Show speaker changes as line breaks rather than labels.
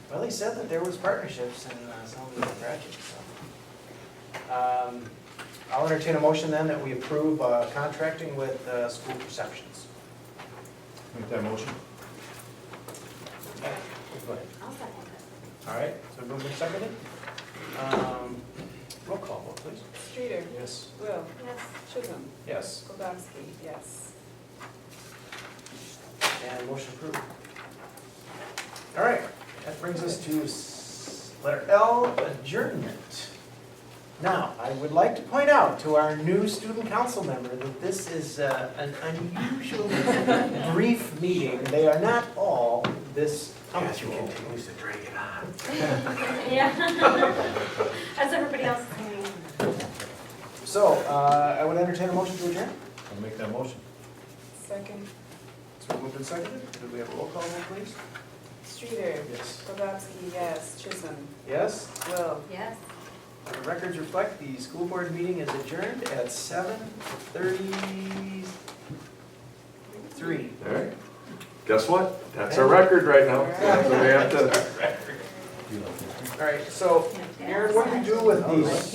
Well, he said that there was partnerships in uh, some of the projects, so. Um, I'll entertain a motion then that we approve uh, contracting with uh, School Perceptions.
Make that motion.
Go ahead.
I'll second
All right, so moved and seconded. Um, Roll call vote, please.
Streeter,
Yes.
Will,
it. Yes.
Chisholm,
Yes,
Kowalski, yes.
and motion approved. All right, that brings us to s- letter L, adjournment. Now, I would like to point out to our new student council member that this is uh, an unusually brief meeting. They are not all this punctual.
to drag it on.
Yeah. As everybody else is doing.
So uh, I would entertain a motion to adjourn.
I'll make that motion.
Second,
So moved and seconded. Could we have a roll call vote, please?
Streeter,
Yes.
Kowalski, yes. Chisholm,
Yes?
Will,
Yes.
The records reflect the school board meeting is adjourned at seven thirty-three.
All right. Guess what? That's our record right now. So we have to.
All right, so Aaron, what do you do with these?